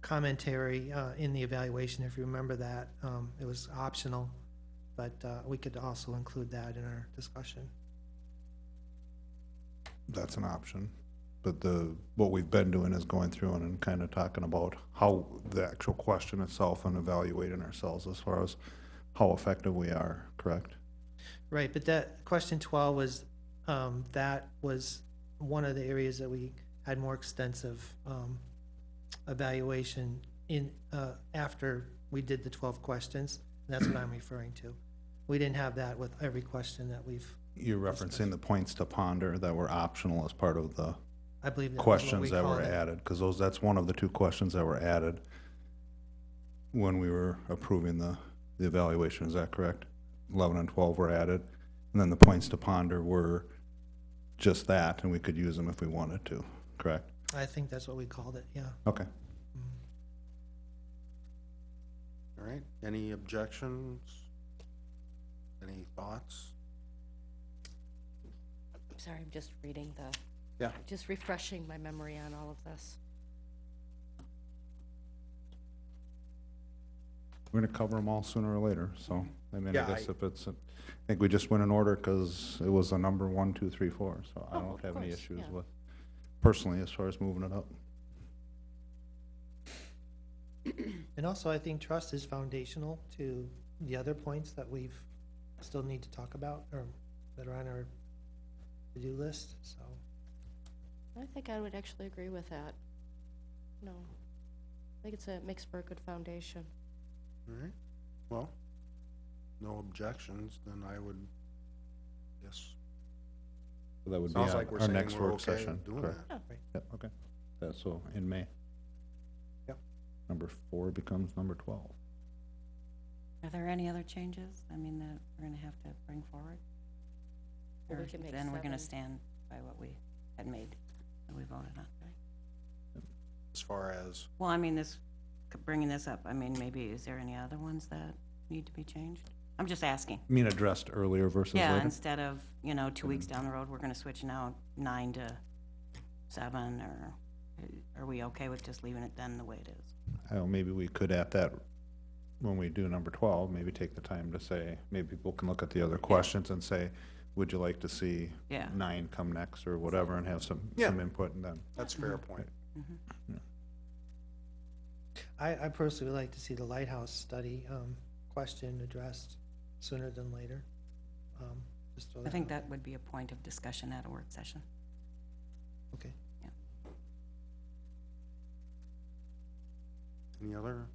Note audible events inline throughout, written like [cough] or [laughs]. commentary uh, in the evaluation, if you remember that. Um, It was optional, but uh, we could also include that in our discussion. that's an option. But the, what we've been doing is going through and- and kind of talking about how the actual question itself and evaluating ourselves as far as how effective we are, correct? Right, but that, question 12 was, um, that was one of the areas that we had more extensive um, evaluation in, uh, after we did the 12 questions. That's what I'm referring to. We didn't have that with every question that we've, You're referencing the points to ponder that were optional as part of the I believe. that was what we questions that were called it. added, because those, that's one of the two questions that were added when we were approving the, the evaluation, is that correct? Eleven and twelve were added, and then the points to ponder were just that, and we could use them if we wanted to, correct? I think that's what we called it, yeah. Okay. All right, any objections? Any thoughts? I'm sorry, I'm just reading the, Yeah, just refreshing my memory on all of this. We're gonna cover them all sooner or later, so, I mean, Yeah, I guess I- if it's, a- I think we just went in order, because it was a number one, two, three, four, so I Oh, don't of have any course, issues yeah. with, personally, as far as moving it up. And also, I think trust is foundational to the other points that we've still need to talk about or that are on our to-do list, so. I think I would actually agree with that. No, I think it's a, it makes for a good foundation. all right, well, no objections, then I would, yes. That would be Sounds our like we're our saying next we're work okay session, doing correct? that. Yep, okay. That's so in May. Yep. Number four becomes number twelve. Are there any other changes, I mean, that we're gonna have to bring forward? Well, we Or can make Then we're seven. gonna stand by what we had made, that we voted on. As far as, Well, I mean, this, bringing this up, I mean, maybe, is there any other ones that need to be changed? I'm just asking. You mean addressed earlier versus Yeah, later? instead of, you know, two weeks down the road, we're gonna switch now nine to seven, or uh, are we okay with just leaving it then the way it is? Oh, maybe we could at that, when we do number twelve, maybe take the time to say, maybe people can look at the other questions and say, would you like to see Yeah. nine come next or whatever and have some, Yeah. some input and then, that's a fair Mm-hmm. point. I, I personally would like to see the lighthouse study, um, question addressed sooner than later. Um, just throw I think out. that would be a point of discussion at a work session. Okay. Any other?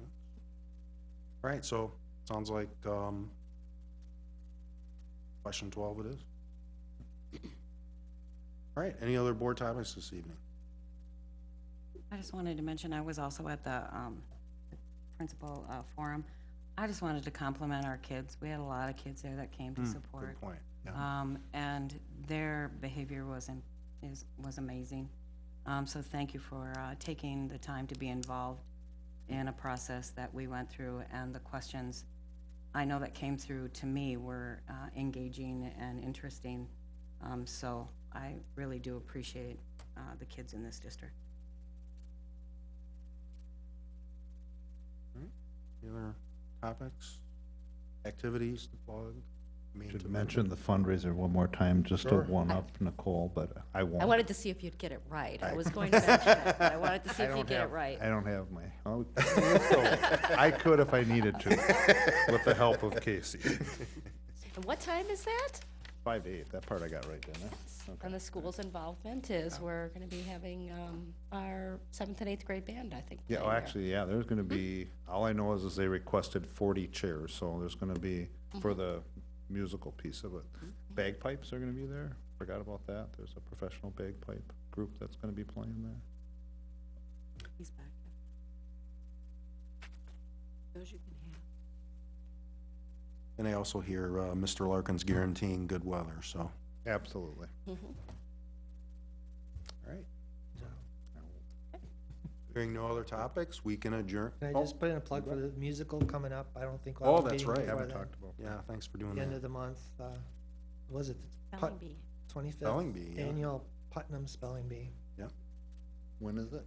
All right, so, sounds like, um, question twelve it is. All right, any other board topics this evening? I just wanted to mention, I was also at the um, the principal uh, forum. I just wanted to compliment our kids. We had a lot of kids there that came to support. Good point, yeah. Um, And their behavior was, am- is, was amazing. Um, So thank you for uh, taking the time to be involved in a process that we went through. And the questions I know that came through to me were uh, engaging and interesting. Um, So I really do appreciate uh, the kids in this district. Any other topics, activities to plug? I mean, to should mention the fundraiser one more time, just to Sure. one up Nicole, but I won't. I wanted to see if you'd get it right. I was going to mention it, but I wanted [laughs] to see if you'd get it right. I don't have my, [laughs] oh, I could if I needed to, with the help of Casey. And what time is that? Five to eight, that part I got right, didn't I? And the school's involvement is, Oh. we're gonna be having, um, our seventh and eighth grade band, I think. Oh, Yeah, play well, there. actually, yeah, there's gonna be, all I know is, is they requested forty chairs, so there's gonna be, for the musical piece of it. Bagpipes are gonna be there, forgot about that, there's a professional bagpipe group that's gonna be playing there. He's back. And I also hear uh, Mr. Larkin's guaranteeing good weather, so, all Absolutely. right. Hearing no other topics, we can adjourn. Can I Oh, just put in a plug for the musical coming up? I don't think. we'll Oh, have a that's meeting right. before Haven't then. talked about, Yeah, thanks for doing The end that. of the month, uh, was it the Spelling bee. twenty-fifth? Spelling bee, yeah. Annual Putnam Spelling Bee. when is it?